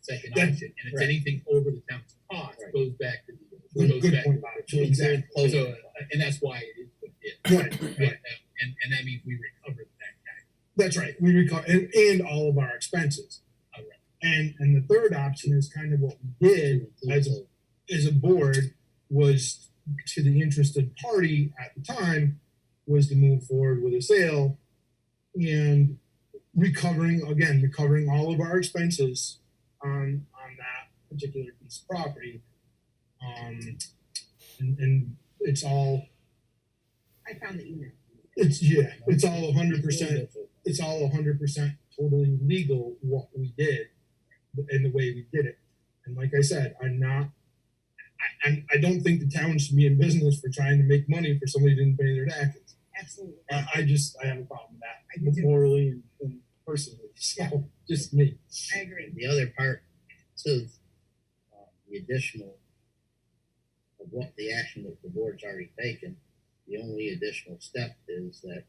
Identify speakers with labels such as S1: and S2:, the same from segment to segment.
S1: second
S2: That-
S1: option, and if
S2: right.
S1: anything over the town's cost
S3: Right.
S1: goes back to the.
S2: Good,
S1: goes
S2: good
S1: back-
S2: point, Bob.
S3: to include
S2: Exactly.
S3: closing.
S1: So, uh, and that's why it is what it is.
S2: Right,
S1: Right,
S2: right.
S1: um, And, and that means we recover that tax.
S2: That's right. We recover and, and all of our expenses.
S1: All right.
S2: And and the third option is kind of what we did as a, as a board was to the interested party at the time was to move forward with a sale and recovering again recovering all of our expenses on on that particular piece of property um and, and it's all
S4: I found the email.
S2: it's yeah it's all 100% it's all hundred percent totally legal what we did and the way we did it. And like I said, I'm not. I, I'm, I don't think the town should be in business for trying to make money for somebody who didn't pay their taxes.
S4: Absolutely.
S2: I, I just I have a problem with that
S4: I do too.
S2: morally and, and personally. So just me.
S4: I agree.
S3: The other part to um, the additional of what the action that the board's already taken, the only additional step is that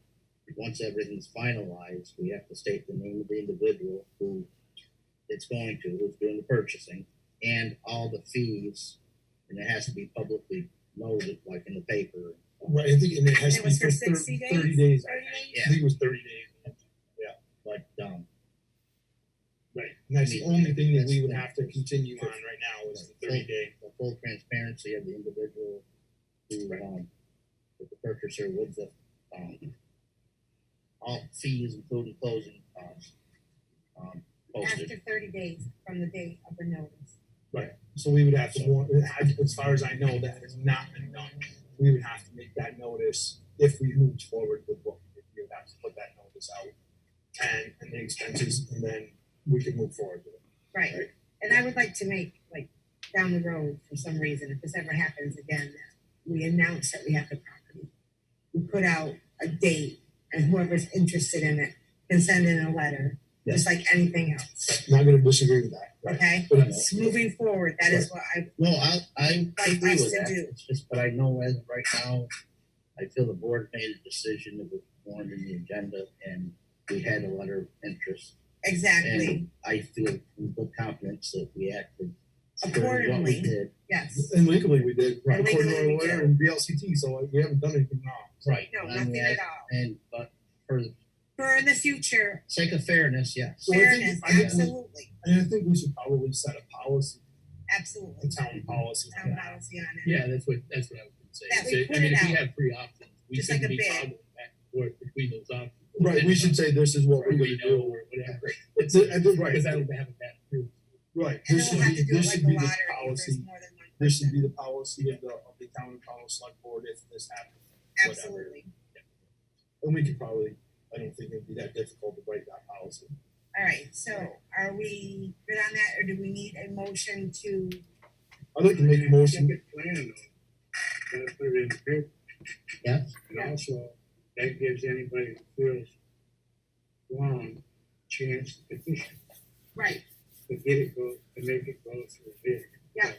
S3: once everything's finalized, we have to state the name of the individual who it's going to, who's doing the purchasing, and all the fees, and it has to be publicly noted, like in the paper.
S2: Right. I think and it has
S4: And it
S2: to be
S4: was for
S2: for 30,
S4: 60 days?
S2: 30 days.
S4: Thirty days?
S2: I think it was thirty days.
S3: Like, um,
S2: Right. And that's the only thing that we would have to continue on right now is the thirty day.
S3: the full transparency of the individual who, um, with the purchaser, with the, um, all fees, including closing, um, um, posted.
S4: After thirty days from the date of the notice.
S2: So we would have to, warn- I- as far as I know, that has not been done. We would have to make that notice if we moved forward with what we did. We would have to put that notice out and, and the expenses, and then we can move forward with it.
S4: Right.
S2: Right.
S4: And I would like to make, like, down the road, for some reason, if this ever happens again, that we announce that we have the property. We put out a date and whoever's interested in it can send in a letter, just like anything else,
S2: Not gonna disagree with that, right?
S4: okay?
S2: But it's-
S4: It's Moving forward, that is what I,
S3: No, I, I
S4: Like,
S3: agree
S4: I
S3: with
S4: still
S3: that,
S4: do.
S3: it's just, but I know as of right now, I feel the board made a decision that was warned in the agenda, and we had a letter of interest.
S4: exactly,
S3: And I feel with confidence that we acted according to what
S4: Accordingly.
S3: we did.
S4: yes.
S2: And legally, we did, right, according to our
S4: Legally, we
S2: lawyer and BLCT, so like, we haven't done anything wrong.
S3: Right.
S4: No,
S3: And I mean,
S4: nothing
S3: I-
S4: at all.
S3: And, but for the
S4: For in the future,
S3: sake of fairness, yes.
S2: Well, I think-
S4: fairness,
S2: I think we-
S4: absolutely,
S2: And I think we should probably set a policy, a
S4: absolutely.
S2: town policy. on
S4: Town
S2: that.
S4: policy on it.
S1: Yeah, that's what, that's what I was gonna say.
S4: That we
S1: So,
S4: put
S1: I mean,
S4: it
S1: if we
S4: out.
S1: have three options, we
S4: Just like
S1: shouldn't
S4: a
S1: be
S4: bid.
S1: toggling back and forth between those options.
S2: Right, we should say this is what
S1: Or
S2: we're
S1: we
S2: gonna
S1: know,
S2: do.
S1: or whatever,
S2: It's, a- I think, right,
S1: because that would have a bad. appearance.
S2: right,
S4: And
S2: this
S4: then
S2: should
S4: we'll have
S2: be,
S4: to do it
S2: this
S4: like
S2: should
S4: the
S2: be
S4: lottery,
S2: the
S4: if
S2: policy.
S4: there's more than one
S2: This should
S4: person,
S2: be the policy of the, of the town and college select board if this happens. whatever.
S4: absolutely.
S2: And we could probably, I don't think it'd be that difficult to break that policy.
S4: All right, so are we good on that, or do we need a motion to,
S2: I'd like to make a motion,
S5: plan though. Gotta put it in print
S3: Yes,
S5: and also that gives anybody who feels wrong chance to petition,
S4: right,
S5: to get it go, to make it go through bid.
S4: Yeah.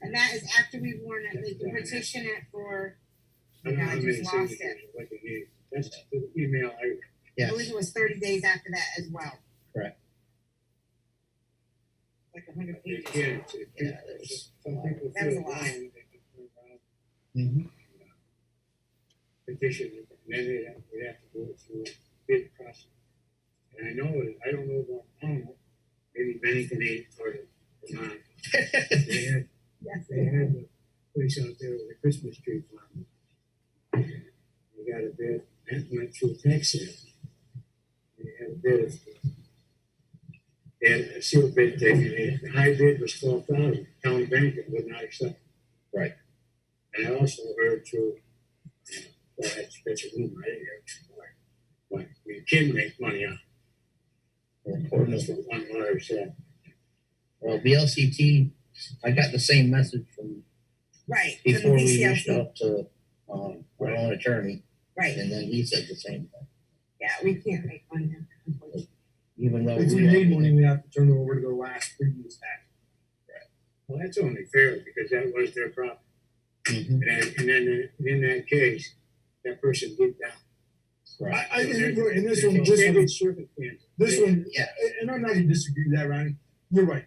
S4: and that is after we warn it, we can petition it for,
S5: I don't know
S4: Yeah, I
S5: how
S4: just
S5: many
S4: lost it.
S5: signatures, what you need. That's the email I,
S4: I
S3: yes.
S4: believe it was thirty days after that as well.
S3: Correct.
S4: Like a hundred
S5: they
S4: pages.
S5: can't, if
S3: Yeah, that was-
S5: some people
S4: That was a
S5: feel
S4: lot.
S5: wrong, they can turn around
S3: Mhm.
S5: and, uh, petition it, and then they have, they have to go through a bid process. And I know, it- I don't know about Pownell, maybe Bennington ain't part of Vermont. They had
S4: Yes,
S5: They had a place out there with a Christmas tree farm. We got a bid, that went through tax sale. They had a bid of. And a sealed bid taken, the high bid was twelve thousand, town bank would not accept.
S3: Right.
S5: And I also heard through, uh, well, that's, that's a rumor, I didn't hear it before, But we can make money on,
S3: Well,
S5: it. that's what one lawyer said.
S3: BLCT, I got the same message from
S4: right, for the
S3: before we reached
S4: VCLC,
S3: out to, um, our own attorney,
S4: right,
S3: and then he said the same thing.
S4: yeah, we can't make one, unfortunately.
S3: Even though.
S2: if we made money, we have to turn it over to the last previous tax.
S5: Well, that's only fair, because that was their problem.
S3: Mhm.
S5: And then, and then in that case, that person did that.
S3: Right,
S2: I, I, and and this one, this one,
S5: Circumstance.
S2: this one,
S3: yeah.
S2: and I'm not gonna disagree with that, Ronnie, you're right,